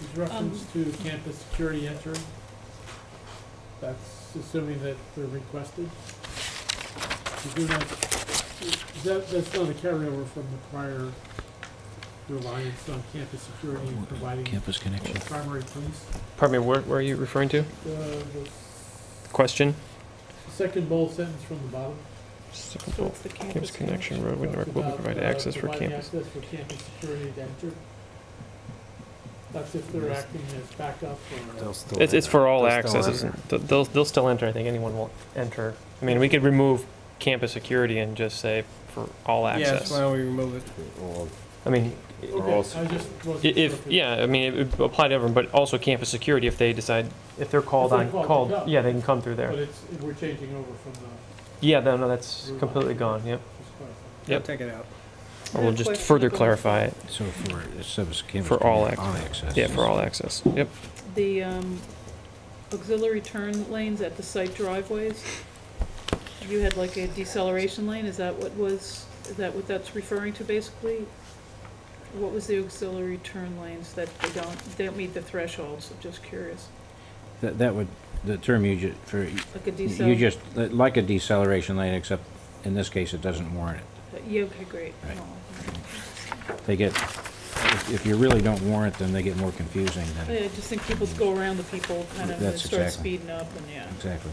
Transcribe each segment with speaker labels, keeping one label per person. Speaker 1: Is reference to campus security entering? That's assuming that they're requested? You do not- is that, that's not a carryover from the prior reliance on campus security and providing
Speaker 2: Campus connection.
Speaker 1: primary police?
Speaker 3: Pardon me, where, where are you referring to?
Speaker 1: Uh, the s-
Speaker 3: Question?
Speaker 1: Second bold sentence from the bottom.
Speaker 4: So it's the
Speaker 3: Campus
Speaker 4: campus
Speaker 3: connection road would
Speaker 1: Talks
Speaker 3: will
Speaker 1: about,
Speaker 3: provide
Speaker 1: uh,
Speaker 3: access for
Speaker 1: providing
Speaker 3: campus.
Speaker 1: access for campus security to enter. That's if they're acting as backup or.
Speaker 3: It's, it's for all access, isn't- th- they'll, theyll still enter, I think anyone will enter. I mean, we could remove campus security and just say for all access.
Speaker 5: Yes, why don't we remove it?
Speaker 3: I mean,
Speaker 1: Okay, I just
Speaker 3: i-
Speaker 1: wasn't sure
Speaker 3: if,
Speaker 1: we-
Speaker 3: yeah, I mean, it would apply to everyone, but also campus security if they decide, if they're called
Speaker 1: they're
Speaker 3: on,
Speaker 1: called to
Speaker 3: called,
Speaker 1: come.
Speaker 3: yeah, they can come through
Speaker 1: But
Speaker 3: there.
Speaker 1: it's, we're changing over from the,
Speaker 3: Yeah, no, no, that's
Speaker 1: Route.
Speaker 3: completely gone, yep.
Speaker 1: just clarifying.
Speaker 3: Yep.
Speaker 5: Take it out.
Speaker 3: Or we'll just further clarify it,
Speaker 2: So for, so it's campus.
Speaker 3: For all
Speaker 2: connection, access.
Speaker 3: yeah, for all access, yep.
Speaker 4: The um, auxiliary turn lanes at the site driveways, you had like a deceleration lane, is that what was, is that what that's referring to basically? What was the auxiliary turn lanes that they don't, they don't meet the thresholds, I'm just curious,
Speaker 2: That, that would, the term you ju, for,
Speaker 4: like a decel?
Speaker 2: you just, like a deceleration lane, except in this case, it doesn't warrant it.
Speaker 4: Uh, Yeah, okay, great.
Speaker 2: Right.
Speaker 4: Oh,
Speaker 2: They get, if, if you really don't warrant them, they get more confusing
Speaker 4: Yeah, I
Speaker 2: than,
Speaker 4: just think people go around the people, kind of, and
Speaker 2: That's
Speaker 4: start
Speaker 2: exactly-
Speaker 4: speeding up, and yeah.
Speaker 2: exactly.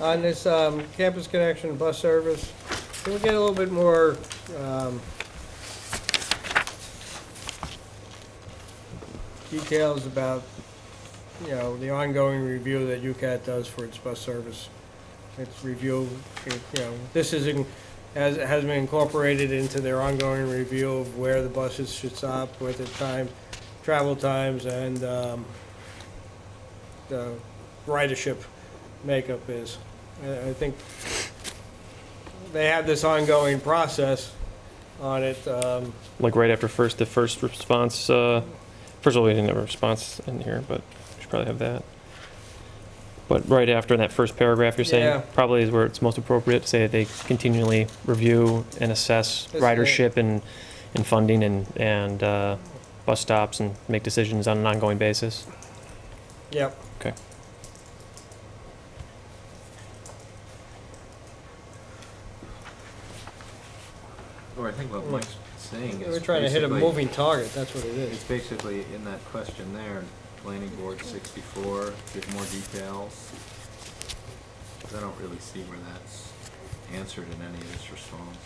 Speaker 5: On this um, campus connection bus service, can we get a little bit more, um, details about, you know, the ongoing review that UCAT does for its bus service? Its review, it, you know, this is, in- has, has been incorporated into their ongoing review of where the buses should stop, where the time, travel times, and, um, the ridership makeup is. I I think they have this ongoing process on it. um,
Speaker 3: Like right after first, the first response, uh, first of all, we didn't have a response in here, but we should probably have that. But right after that first paragraph, you're
Speaker 5: Yeah.
Speaker 3: saying probably is where it's most appropriate to say that they continually review and assess
Speaker 5: That's right.
Speaker 3: ridership and, and funding and, and, uh, bus stops and make decisions on an ongoing basis.
Speaker 5: Yep.
Speaker 3: Okay.
Speaker 6: Or I think what Mike's saying is
Speaker 5: We're trying to hit a
Speaker 6: basically-
Speaker 5: moving target, that's what it is.
Speaker 6: It's basically in that question there, planning board sixty-four, give more details. 'Cause I don't really see where that's answered in any of this response.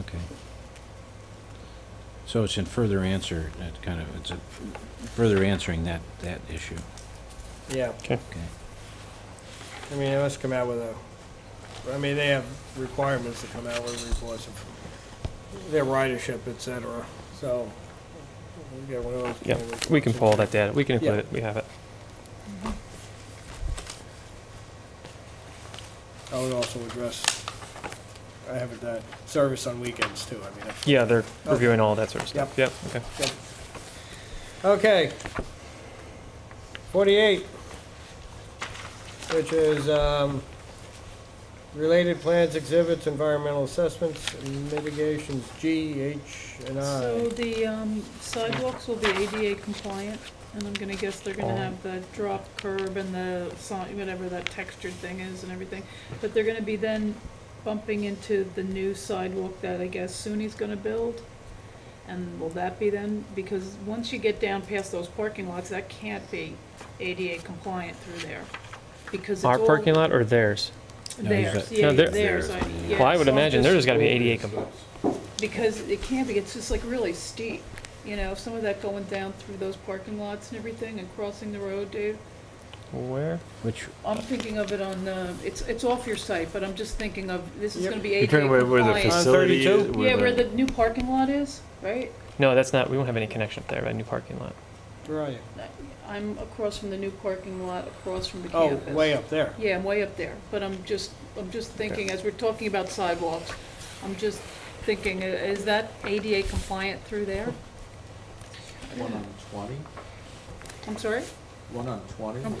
Speaker 2: Okay. So it's in further answer, it kind of, it's a further answering that, that issue,
Speaker 5: Yeah,
Speaker 2: okay?
Speaker 5: I mean, they must come out with a, I mean, they have requirements to come out with reports of their ridership, et cetera, so. we get one of those
Speaker 3: Yeah,
Speaker 5: kind of
Speaker 3: we can pull
Speaker 5: reports.
Speaker 3: that data, we can include
Speaker 5: Yeah.
Speaker 3: it, we have it.
Speaker 5: I would also address, I have it that, service on weekends too, I mean, that's
Speaker 3: Yeah, they're reviewing all that sort of stuff, yep, okay.
Speaker 5: Okay. Forty-eight, which is, um, related plans, exhibits, environmental assessments, and mitigations, G, H, and
Speaker 4: So
Speaker 5: I.
Speaker 4: the um, sidewalks will be ADA compliant, and I'm gonna guess they're gonna
Speaker 3: Oh.
Speaker 4: have the drop curb and the sign, whatever that textured thing is and everything. But they're gonna be then bumping into the new sidewalk that I guess SUNY's gonna build. And will that be then, because once you get down past those parking lots, that can't be ADA compliant through there. Because it's
Speaker 3: Our
Speaker 4: all
Speaker 3: parking lot or theirs?
Speaker 2: No, he's
Speaker 4: theirs,
Speaker 2: got-
Speaker 4: yeah,
Speaker 3: No, they're-
Speaker 4: theirs, I, yeah.
Speaker 3: Well, I would
Speaker 4: so I'm
Speaker 3: imagine
Speaker 4: just-
Speaker 3: theirs has gotta be ADA compliant.
Speaker 4: because it can't be, it's just like really steep, you know, some of that going down through those parking lots and everything and crossing the road, Dave.
Speaker 3: Where?
Speaker 2: Which,
Speaker 4: I'm thinking of it on, uh, it's, it's off your site, but I'm just thinking of, this is
Speaker 5: Yep.
Speaker 4: gonna be
Speaker 7: You're
Speaker 4: ADA
Speaker 7: talking about where the
Speaker 4: compliant.
Speaker 7: facility is?
Speaker 5: 32?
Speaker 4: Yeah, where the new parking lot is, right?
Speaker 3: No, that's not, we won't have any connection up there, that new parking lot.
Speaker 5: Where are you?
Speaker 4: I'm across from the new parking lot, across from the
Speaker 5: Oh,
Speaker 4: campus.
Speaker 5: way up there.
Speaker 4: Yeah, I'm way up there, but I'm just, I'm just thinking, as we're talking about sidewalks, I'm just thinking, uh, is that ADA compliant through there?
Speaker 6: One on twenty,
Speaker 4: I'm sorry?
Speaker 6: one on twenty.
Speaker 4: I'm